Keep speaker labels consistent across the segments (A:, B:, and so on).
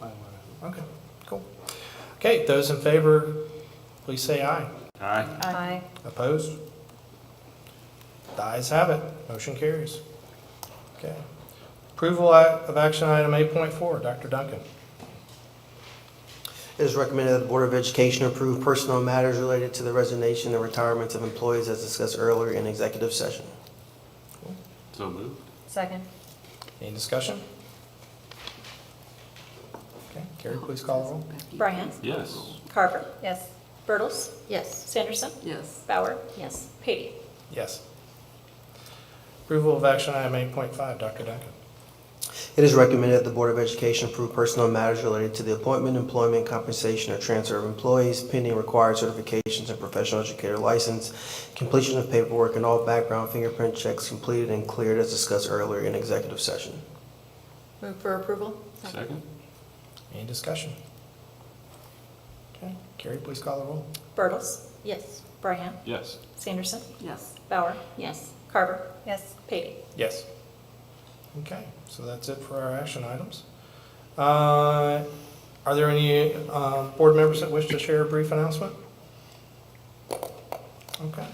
A: Might wanna- Okay, cool. Okay, those in favor, please say aye.
B: Aye.
C: Aye.
A: Opposed? The ayes have it. Motion carries. Okay. Approval a- of action item 8.4, Dr. Duncan.
D: It is recommended that the Board of Education approve personnel matters related to the resignation and retirements of employees as discussed earlier in executive session.
B: So moved.
C: Second.
A: Any discussion? Okay, Carrie, please call the roll.
E: Bryant.
B: Yes.
E: Carver.
C: Yes.
E: Bertles.
C: Yes.
E: Sanderson.
F: Yes.
E: Bauer.
C: Yes.
E: Patey.
A: Yes. Approval of action item 8.5, Dr. Duncan.
D: It is recommended that the Board of Education approve personnel matters related to the appointment, employment, compensation, or transfer of employees pending required certifications and professional educator license, completion of paperwork, and all background fingerprint checks completed and cleared as discussed earlier in executive session.
F: Move for approval?
B: Second?
A: Any discussion? Okay, Carrie, please call the roll.
E: Bertles.
C: Yes.
E: Bryant.
B: Yes.
E: Sanderson.
F: Yes.
E: Bauer.
C: Yes.
E: Carver.
C: Yes.
E: Patey.
A: Yes. Okay, so that's it for our action items. Uh, Are there any uh, board members that wish to share a brief announcement? Okay,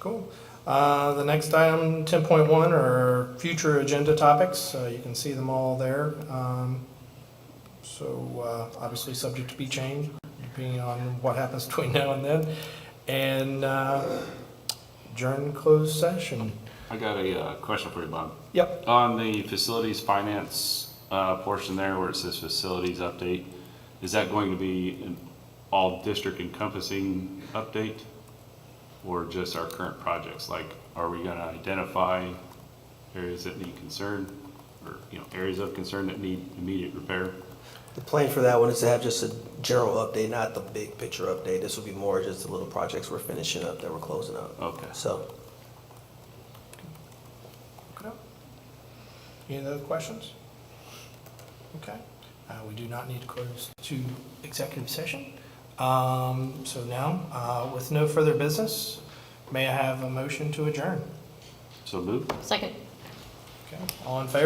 A: cool. Uh, The next item, 10.1, are future agenda topics. Uh, You can see them all there. Um, So uh, obviously, subject to be changed, depending on what happens between now and then. And uh, adjourn closed session.
B: I got a uh, question for you, Bob.
A: Yep.
B: On the facilities finance uh, portion there where it says facilities update, is that going to be an all district encompassing update? Or just our current projects? Like, are we going to identify areas that need concern? Or, you know, areas of concern that need immediate repair?
D: The plan for that one is to have just a general update, not the big picture update. This will be more just the little projects we're finishing up that we're closing up.
B: Okay.
D: So,
A: Okay. Any other questions? Okay, Uh, we do not need to close to executive session. Um, So now, uh, with no further business, may I have a motion to adjourn?
B: So moved?
C: Second.
A: Okay, all in favor?